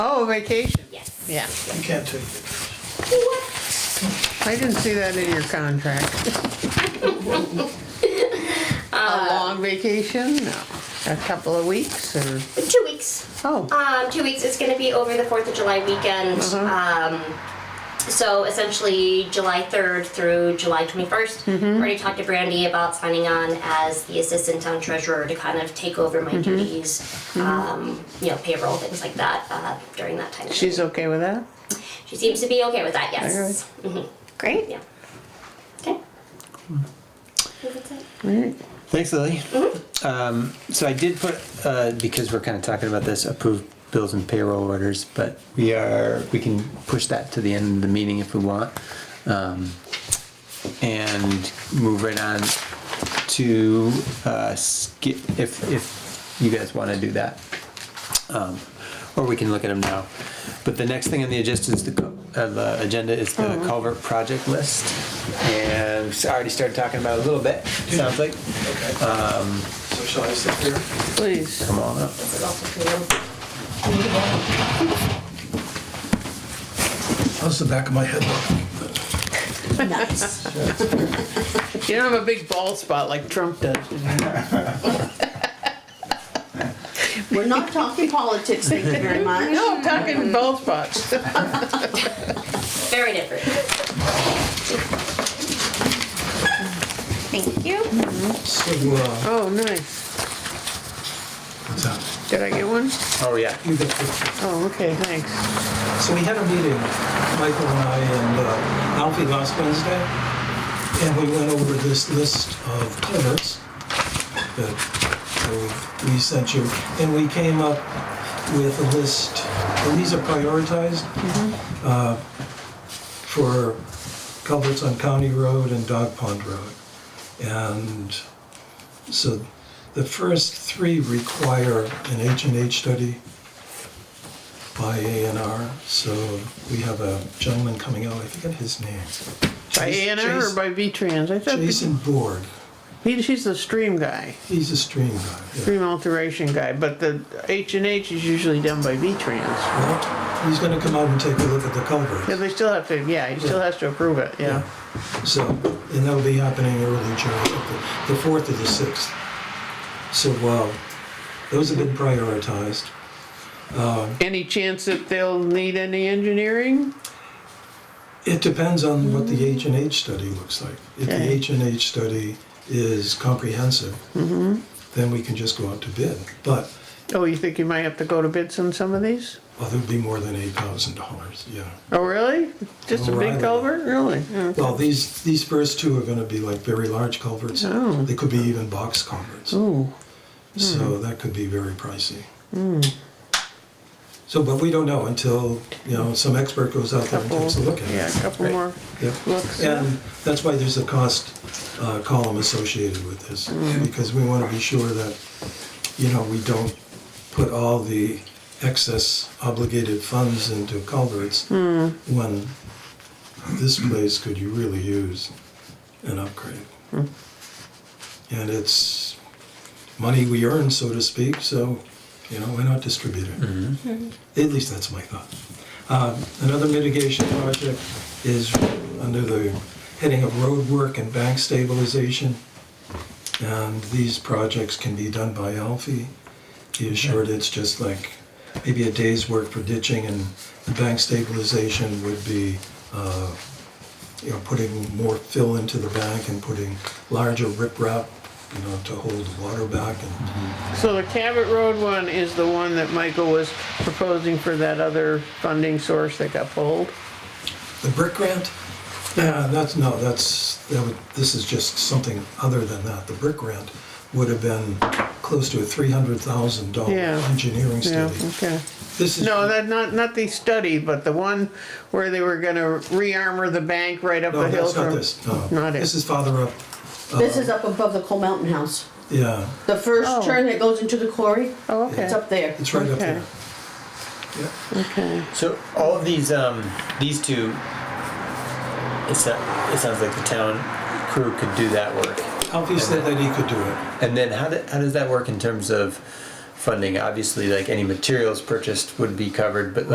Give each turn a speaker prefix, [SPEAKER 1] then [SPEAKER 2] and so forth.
[SPEAKER 1] Oh, vacation.
[SPEAKER 2] Yes.
[SPEAKER 1] Yeah.
[SPEAKER 3] You can't take it.
[SPEAKER 1] I didn't see that in your contract. A long vacation? No. A couple of weeks or,
[SPEAKER 2] Two weeks.
[SPEAKER 1] oh,
[SPEAKER 2] Um, two weeks. It's going to be over the 4th of July weekend. Um, so essentially, July 3rd through July 21st. Already talked to Brandy about signing on as the assistant town treasurer to kind of take over my duties, um, you know, payroll, things like that uh, during that time.
[SPEAKER 1] she's okay with that?
[SPEAKER 2] she seems to be okay with that, yes. hmm
[SPEAKER 1] Great.
[SPEAKER 2] Yeah. Okay. That's it.
[SPEAKER 4] Thanks, Lily. Um, So I did put, uh, because we're kind of talking about this, approved bills and payroll orders, but we are, we can push that to the end of the meeting if we want. um, And move right on to uh, skip, if, if you guys want to do that. Um, Or we can look at them now. But the next thing on the agenda is the, cul- uh, the agenda is the culvert project list. And we already started talking about it a little bit, sounds like.
[SPEAKER 3] Okay. So shall I sit here?
[SPEAKER 1] Please.
[SPEAKER 4] Come on up.
[SPEAKER 3] How's the back of my head look?
[SPEAKER 1] You don't have a big bald spot like Trump does.
[SPEAKER 5] We're not talking politics, thank you very much.
[SPEAKER 1] No, I'm talking bald spots.
[SPEAKER 2] Very different.
[SPEAKER 5] Thank you.
[SPEAKER 3] So, uh,
[SPEAKER 1] Oh, nice.
[SPEAKER 3] what's up?
[SPEAKER 1] Did I get one?
[SPEAKER 4] Oh, yeah.
[SPEAKER 3] You got the-
[SPEAKER 1] Oh, okay, thanks.
[SPEAKER 3] So we had a meeting, Michael and I and uh, Alfie last Wednesday, and we went over this list of culverts that uh, we sent you, and we came up with a list, and these are prioritized uh, for culverts on County Road and Dog Pond Road. And so the first three require an H and H study by A and R, so we have a gentleman coming out, I forget his name.
[SPEAKER 1] By A and R or by V-Trans? I thought,
[SPEAKER 3] Jason Board,
[SPEAKER 1] he, she's the stream guy,
[SPEAKER 3] he's a stream guy. yeah.
[SPEAKER 1] stream alteration guy, but the H and H is usually done by V-Trans.
[SPEAKER 3] Well, He's gonna come out and take a look at the
[SPEAKER 1] Yeah,
[SPEAKER 3] culvert.
[SPEAKER 1] they still have to, yeah, he still has to approve it, yeah.
[SPEAKER 3] So, and that'll be happening early July, the- the fourth or the sixth. So, wow, those have been prioritized.
[SPEAKER 1] Any chance that they'll need any engineering?
[SPEAKER 3] It depends on what the H and H study looks like. If the
[SPEAKER 1] Mm-hmm. Okay.
[SPEAKER 3] H and H study is comprehensive,
[SPEAKER 1] Mm-hmm.
[SPEAKER 3] then we can just go out to bid. But,
[SPEAKER 1] Oh, you think you might have to go to bids on some of these?
[SPEAKER 3] well, there'd be more than eight thousand dollars, yeah.
[SPEAKER 1] Oh, really? Just a big
[SPEAKER 3] O'Reilly.
[SPEAKER 1] culvert, really? Yeah.
[SPEAKER 3] Well, these, these first two are gonna be like very large culverts.
[SPEAKER 1] Oh.
[SPEAKER 3] They could be even box culverts,
[SPEAKER 1] Ooh, Hmm.
[SPEAKER 3] so that could be very pricey. So, but we don't know until, you know, some expert goes out there and
[SPEAKER 1] couple,
[SPEAKER 3] takes a look at it.
[SPEAKER 1] yeah, a couple
[SPEAKER 4] Right.
[SPEAKER 1] more
[SPEAKER 3] Yep.
[SPEAKER 1] looks.
[SPEAKER 3] And that's why there's a cost uh, column associated with this, because we want to be sure that, you know, we don't put all the excess obligated funds into culverts when this place could you really use an upgrade. And it's money we earn, so to speak, so, you know, why not distribute it? At least that's my thought. Um, Another mitigation project is under the heading of road work and bank stabilization. And these projects can be done by Alfie. He assured it's just like maybe a day's work for ditching and the bank stabilization would be, uh, you know, putting more fill into the bank and putting larger riprap, you know, to hold the water back and
[SPEAKER 1] So the Cabot Road one is the one that Michael was proposing for that other funding source that got pulled?
[SPEAKER 3] The brick grant? Yeah, that's, no, that's, that would, this is just something other than that. The brick grant would have been close to a three hundred thousand dollar
[SPEAKER 1] Yeah.
[SPEAKER 3] engineering
[SPEAKER 1] Yeah,
[SPEAKER 3] study.
[SPEAKER 1] okay.
[SPEAKER 3] This is.
[SPEAKER 1] No, that, not, not the study, but the one where they were gonna re-armor the bank right up
[SPEAKER 3] No,
[SPEAKER 1] the hill
[SPEAKER 3] that's
[SPEAKER 1] from.
[SPEAKER 3] not this, no.
[SPEAKER 1] Not
[SPEAKER 3] This
[SPEAKER 1] it.
[SPEAKER 3] is farther up,
[SPEAKER 5] This is up above the Coal Mountain House.
[SPEAKER 3] yeah,
[SPEAKER 5] The
[SPEAKER 1] Oh.
[SPEAKER 5] first turn that goes into the quarry,
[SPEAKER 1] Oh,
[SPEAKER 5] it's
[SPEAKER 1] okay,
[SPEAKER 5] up there.
[SPEAKER 3] it's right up
[SPEAKER 1] Okay.
[SPEAKER 3] there. Yeah,
[SPEAKER 1] okay.
[SPEAKER 4] So all of these, um, these two, it, so, it sounds like the town crew could do that work.
[SPEAKER 3] Alfie said that he could do it.
[SPEAKER 4] And then how, do, how does that work in terms of funding? Obviously, like any materials purchased would be covered, but